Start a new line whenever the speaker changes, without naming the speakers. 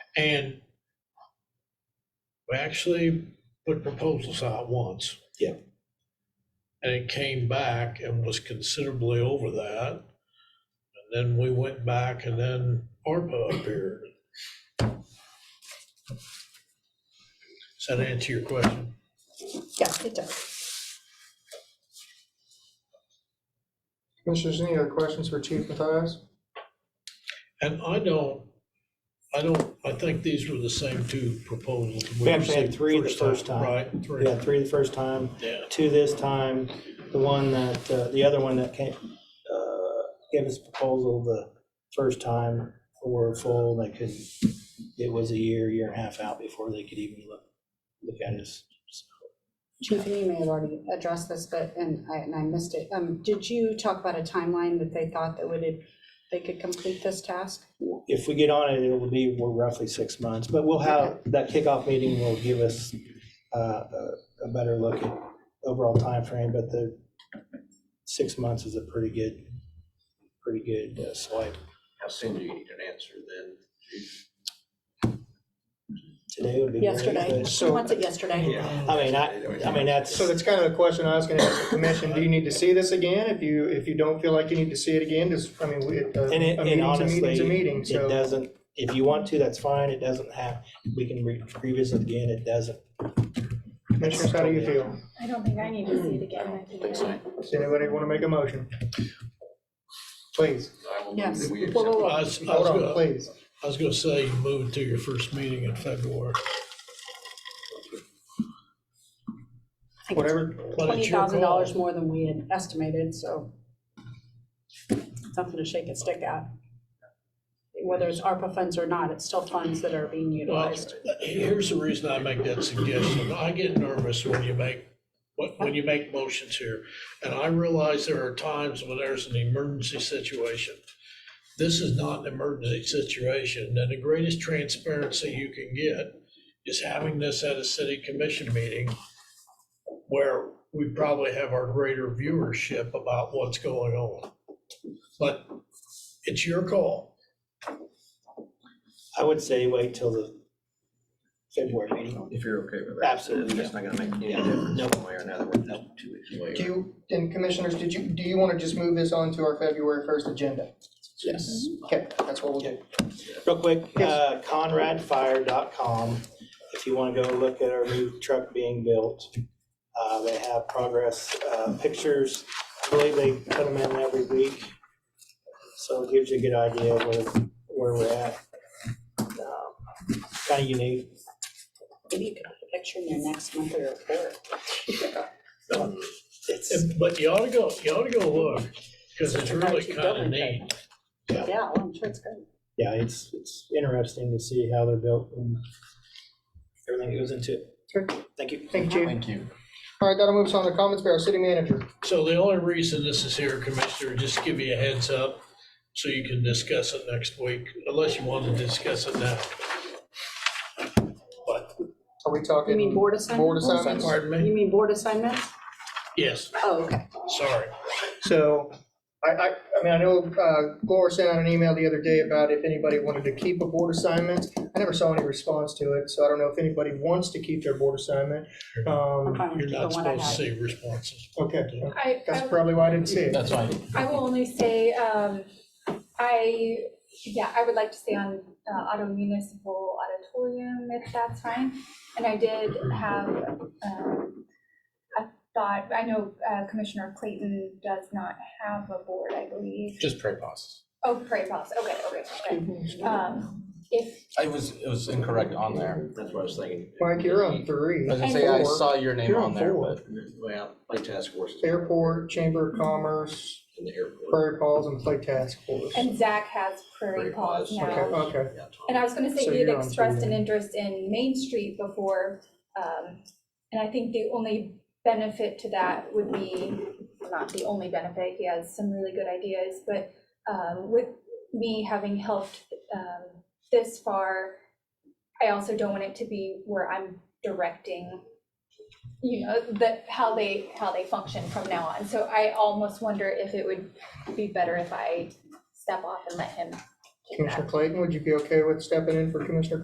And we actually put proposals out once.
Yeah.
And it came back and was considerably over that. And then we went back and then ARPA appeared. Does that answer your question?
Yeah, it does.
Commissioners, any other questions for Chief Matthias?
And I don't, I don't, I think these were the same two proposals.
We actually had
received
three the first time.
Right, three.
We had three the first time,
Yeah,
two this time, the one that, uh, the other one that came, uh, gave us proposal the first time were full, they couldn't, it was a year, year and a half out before they could even look, look at us. So,
Chief, and you may have already addressed this, but, and I, and I missed it. Um, did you talk about a timeline that they thought that would, they could complete this task?
If we get on it, it will be well, roughly six months, but we'll have, that kickoff meeting will give us uh, a a better look at overall time frame. but the six months is a pretty good, pretty good uh, swipe.
How soon do you need an answer then?
Today would be great.
Yesterday,
but-
she wants it yesterday.
I mean, I, I mean, that's,
So that's kind of the question I was gonna ask the commission, do you need to see this again? If you, if you don't feel like you need to see it again, just, I mean, we, a a
and it, and
meeting's a meeting's a
honestly,
meeting,
it
so.
doesn't, if you want to, that's fine, it doesn't have, we can re- revisit again, it doesn't.
Commissioners, how do you feel?
I don't think I need to see it again. I think
Please,
I-
I
Does anybody want to make a motion? Please,
I will move
Yes.
that we
Whoa, whoa, whoa.
accept.
I was, I
hold
was
on,
gonna,
please.
I was gonna say, you move it to your first meeting in February.
I think
Whatever,
But
Twenty
it's your
thousand dollars
call.
more than we had estimated, so something to shake a stick at. Whether it's ARPA funds or not, it's still funds that are being
Well, uh,
utilized.
here's the reason I make that suggestion. I get nervous when you make, when- when you make motions here. And I realize there are times when there's an emergency situation. This is not an emergency situation, and the greatest transparency you can get is having this at a city commission meeting where we probably have our greater viewership about what's going on. But it's your call.
I would say wait till the February meeting.
If you're okay with that.
Absolutely,
It's not gonna make any
Yeah.
difference
Nope.
one way or another, we're just two weeks away.
do you, and commissioners, did you, do you want to just move this on to our February first agenda?
Yes.
Okay, that's what we'll do.
Real quick,
Yes.
uh, conradfire.com, if you want to go look at our new truck being built. Uh, They have progress uh, pictures, I believe they put them in every week. So it gives you a good idea of where, where we're at. Kind of unique.
Maybe you could put a picture in your next monthly report.
It's,
And- But you ought to go, you ought to go look, because it's really kind of neat.
Yeah.
Yeah, well, I'm sure it's good.
yeah, it's, it's interesting to see how they're built and everything that goes into it.
Sure.
Thank you.
Thank you, Chief.
Thank you.
All right, that'll move us on to comments by our city manager.
So the only reason this is here, Commissioner, just to give you a heads up, so you can discuss it next week, unless you want to discuss it now. But,
Are we talking?
You mean board assignment?
Board assignments.
pardon me?
You mean board assignments?
Yes,
Oh, okay.
sorry.
So I, I, I mean, I know uh, Laura sent out an email the other day about if anybody wanted to keep a board assignment. I never saw any response to it, so I don't know if anybody wants to keep their board assignment.
I'm
Um,
fine
You're
with
not
the one I
supposed to
had.
see responses.
Okay,
I,
that's
I,
probably why I didn't see it.
That's fine.
I will only say, um, I, yeah, I would like to stay on, uh, Auto Municipal Auditorium if that's fine. And I did have, um, I thought, I know uh, Commissioner Clayton does not have a board, I believe.
Just prairie bosses.
Oh, Prairie Boss, okay, okay, okay. Um, if,
I was, it was incorrect on there.
That's what I was thinking.
Mike, you're on three.
I was gonna say, I saw your name
You're on
on there,
four.
but
Well, play task forces
Airport, Chamber of Commerce,
in the airport.
Prairie Falls, and Clay Task Force.
and Zach has Prairie
Prairie
Paws
Paws,
now.
Okay, okay.
Yeah, Tom.
And I was gonna say,
So
you
you're
had
on
expressed
to-
an interest in Main Street before, um, and I think the only benefit to that would be, not the only benefit, he has some really good ideas, but, um, with me having helped, um, this far, I also don't want it to be where I'm directing, you know, the, how they, how they function from now on. So I almost wonder if it would be better if I step off and let him take that.
Commissioner Clayton, would you be okay with stepping in for Commissioner